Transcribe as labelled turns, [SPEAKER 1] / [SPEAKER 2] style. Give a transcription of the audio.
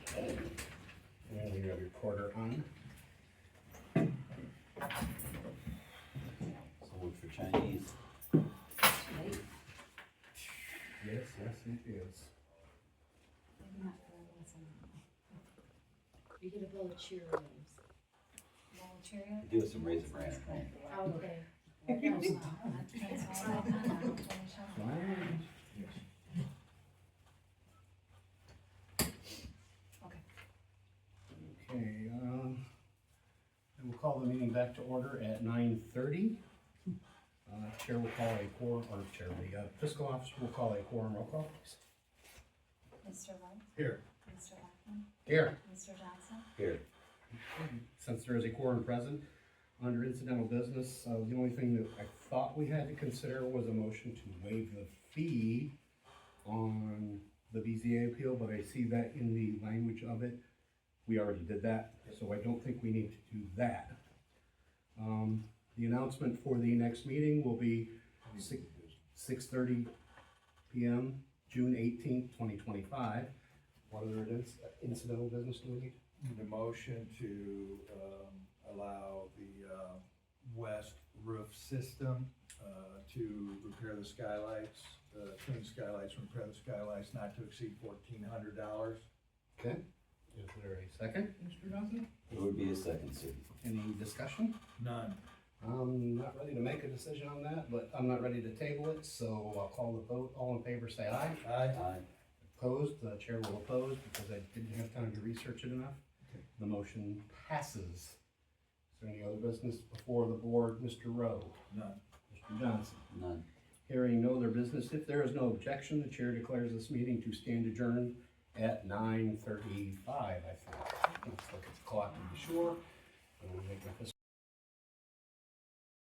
[SPEAKER 1] Okay. And we got a recorder on.
[SPEAKER 2] So look for Chinese.
[SPEAKER 3] Right?
[SPEAKER 1] Yes, yes, it is.
[SPEAKER 3] Maybe not for us, I don't know. We get a bowl of Cheerios.
[SPEAKER 4] Bowl of Cheerios?
[SPEAKER 2] Do us some raisin bran at home.
[SPEAKER 3] Okay.
[SPEAKER 4] That's all I have.
[SPEAKER 1] Fine. Yes.
[SPEAKER 4] Okay.
[SPEAKER 1] Okay, um, and we'll call the meeting back to order at nine thirty. Uh, Chair will call a quorum, or Chair, the uh, fiscal officer will call a quorum roll call, please.
[SPEAKER 4] Mr. White,
[SPEAKER 1] Here.
[SPEAKER 4] Mr. Blackman,
[SPEAKER 1] Here.
[SPEAKER 4] Mr. Johnson,
[SPEAKER 2] Here,
[SPEAKER 1] Since there is a quorum present, under incidental business, uh, the only thing that I thought we had to consider was a motion to waive the fee on the BZA appeal, but I see that in the language of it, we already did that, so I don't think we need to do that. Um, the announcement for the next meeting will be six, six thirty PM, June eighteenth, twenty twenty-five. What other inc- incidental business do we need?
[SPEAKER 5] The motion to, um, allow the, uh, west roof system, uh, to repair the skylights, uh, clean skylights, repair the skylights, not to exceed fourteen hundred dollars.
[SPEAKER 1] Okay, is there a second, Mr. Johnson?
[SPEAKER 2] it would be a second city.
[SPEAKER 1] Any discussion?
[SPEAKER 5] None.
[SPEAKER 1] I'm not ready to make a decision on that, but I'm not ready to table it, so I'll call the vote. All in favor, say aye.
[SPEAKER 5] Aye.
[SPEAKER 2] Aye,
[SPEAKER 1] Opposed, the chair will oppose because I didn't have time to research it enough. The motion passes. Is there any other business before the board? Mr. Rowe?
[SPEAKER 5] None.
[SPEAKER 1] Mr. Johnson?
[SPEAKER 2] none.
[SPEAKER 1] Hearing no other business, if there is no objection, the chair declares this meeting to stand adjourned at nine thirty-five, I think. Let's look at the clock to be sure. I'm gonna make my fist